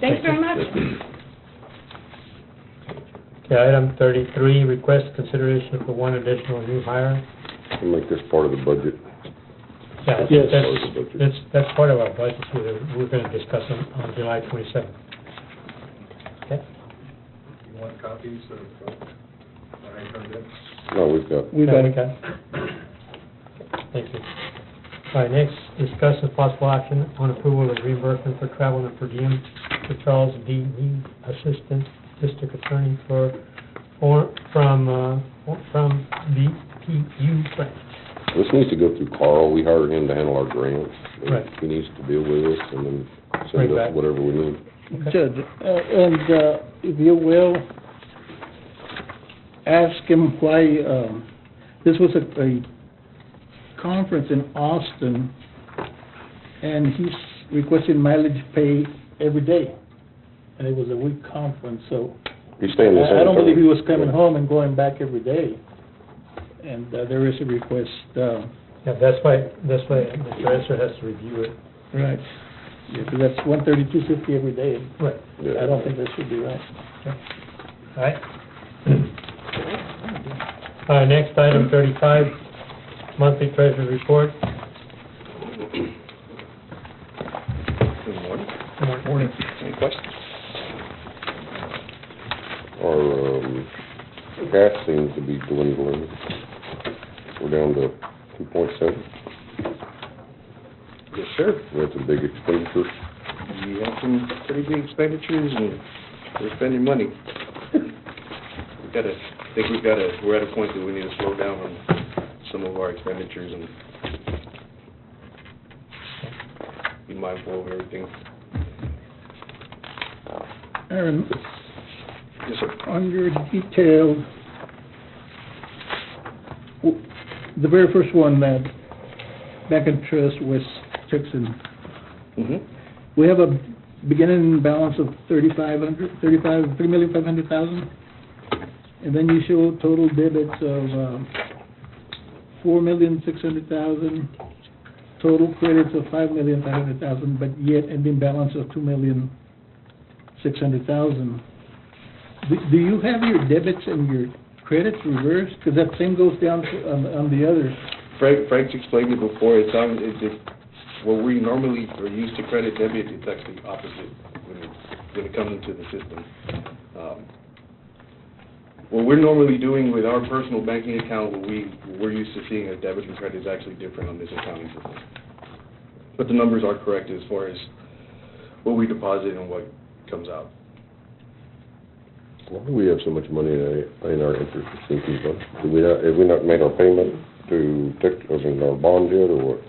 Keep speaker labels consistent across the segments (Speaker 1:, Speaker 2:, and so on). Speaker 1: Thanks very much.
Speaker 2: Okay, item thirty-three, request consideration for one additional new hire.
Speaker 3: And make this part of the budget.
Speaker 2: Yeah, that's-
Speaker 3: Yes.
Speaker 2: That's, that's, that's part of our budget, we're, we're gonna discuss on, on July twenty-seventh. Okay?
Speaker 4: You want copies of, uh, what I heard it?
Speaker 3: No, we've got,
Speaker 5: We
Speaker 2: Yeah,
Speaker 5: got it.
Speaker 2: okay. Thank you. All right, next, discuss the possible action on approval of reimbursement for travel and per diem for Charles D. Reed, Assistant District Attorney for, for, from, uh, from BPU grant.
Speaker 3: this needs to go through Carl, we hired him to handle our grants. and
Speaker 2: Right.
Speaker 3: He needs to deal with us and then
Speaker 2: Bring
Speaker 3: send us
Speaker 2: back.
Speaker 3: whatever we need.
Speaker 5: Judge, uh, and, uh, if you will, ask him why, um, this was a, a conference in Austin, and he's requesting mileage pay every day. And it was a week conference, so
Speaker 3: He's staying this.
Speaker 5: I I don't
Speaker 3: Saturday.
Speaker 5: believe he was coming home and going back every day. And uh, there is a request, uh,
Speaker 2: Yeah, that's why, that's why Mr. Esser has to review it.
Speaker 5: right, yeah, 'cause that's one thirty-two fifty every day.
Speaker 2: Right.
Speaker 3: Yeah.
Speaker 5: I don't think that should be right.
Speaker 2: All right. All right, next, item thirty-five, monthly treasury report.
Speaker 4: Good morning.
Speaker 2: Good morning.
Speaker 4: Any questions?
Speaker 3: Our, um, gas seems to be dwindling. We're down to two point seven.
Speaker 4: Yes, sir.
Speaker 3: That's a big expenditure.
Speaker 4: We have some pretty big expenditures and we're spending money. We gotta, I think we've gotta, we're at a point that we need to slow down on some of our expenditures and be mindful of everything.
Speaker 5: Aaron,
Speaker 4: Yes, sir.
Speaker 5: on your detail, w- the very first one, that back in trust, West Texan,
Speaker 4: Mm-hmm.
Speaker 5: we have a beginning balance of thirty-five hundred, thirty-five, three million five hundred thousand, and then you show total debits of, um, four million six hundred thousand, total credits of five million five hundred thousand, but yet ending balance of two million six hundred thousand. Do, do you have your debits and your credits reversed? Because that same goes down to- on, on the others.
Speaker 4: Frank, Frank's explained it before, it's on, it's, it, where we normally are used to credit debit, it's actually opposite when it, when it comes into the system. Um, What we're normally doing with our personal banking account, what we, what we're used to seeing as debit and credit is actually different on this accounting system. But the numbers are correct as far as what we deposit and what comes out.
Speaker 3: Why do we have so much money in our- in our interest sinking fund? Do we not, have we not made our payment to, Tech- I mean, our bond yet, or what?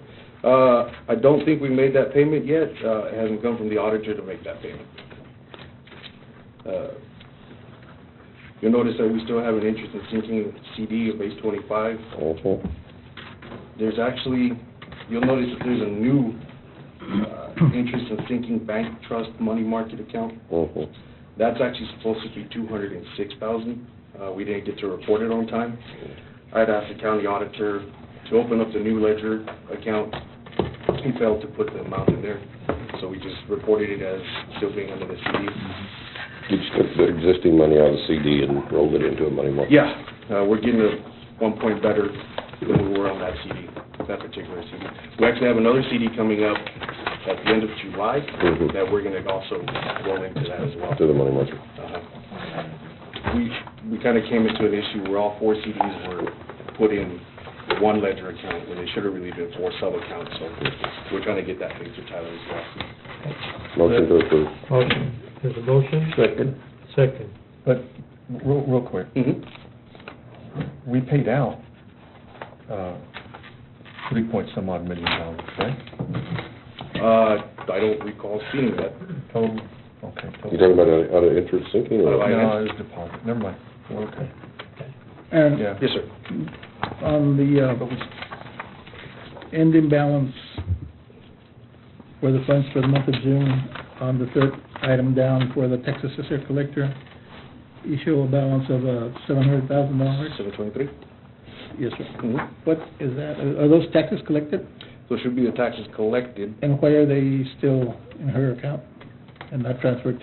Speaker 4: Uh, I don't think we made that payment yet, uh, it hasn't come from the auditor to make that payment. Uh, You'll notice that we still have an interest in sinking CD of base twenty-five.
Speaker 3: Also,
Speaker 4: There's actually, you'll notice that there's a new, uh, interest in sinking bank trust money market account.
Speaker 3: also.
Speaker 4: That's actually supposed to be two hundred and six thousand. Uh, we didn't get to report it on time. I'd asked the county auditor to open up the new ledger account. He failed to put the amount in there, so we just reported it as still being under the CD.
Speaker 3: You just took the existing money out of the CD and rolled it into a money market?
Speaker 4: Yeah, uh, we're getting a one point better than we were on that CD, that particular CD. We actually have another CD coming up at the end of July
Speaker 3: Mhm.
Speaker 4: that we're gonna also roll into that as well.
Speaker 3: To the money market.
Speaker 4: Uh-huh. We, we kind of came into an issue where all four CDs were put in one ledger account, when they should have really been four sub-accounts, so we're trying to get that fixed with Tyler as well.
Speaker 3: Motion to approve.
Speaker 2: Motion, there's a motion,
Speaker 4: Second.
Speaker 2: second.
Speaker 6: But, real, real quick,
Speaker 4: Mm-hmm.
Speaker 6: we paid out, uh, three point some odd million dollars, right?
Speaker 4: Uh, I don't recall seeing that.
Speaker 6: Total, okay, total.
Speaker 3: You talking about out of- out of interest sinking,
Speaker 4: Out of
Speaker 3: or?
Speaker 4: I-
Speaker 6: No, it was deposit, never mind, We're okay,
Speaker 5: Aaron,
Speaker 6: yeah.
Speaker 4: Yes, sir.
Speaker 5: on the, uh,
Speaker 6: But we,
Speaker 5: ending balance for the funds for the month of June on the third item down for the Texas Assessor Collector. You show a balance of, uh, seven hundred thousand dollars.
Speaker 4: Seven twenty-three?
Speaker 5: Yes, sir.
Speaker 4: Mm-hmm.
Speaker 5: What is that? Are are those taxes collected?
Speaker 4: So it should be the taxes collected
Speaker 5: And why are they still in her account and not transferred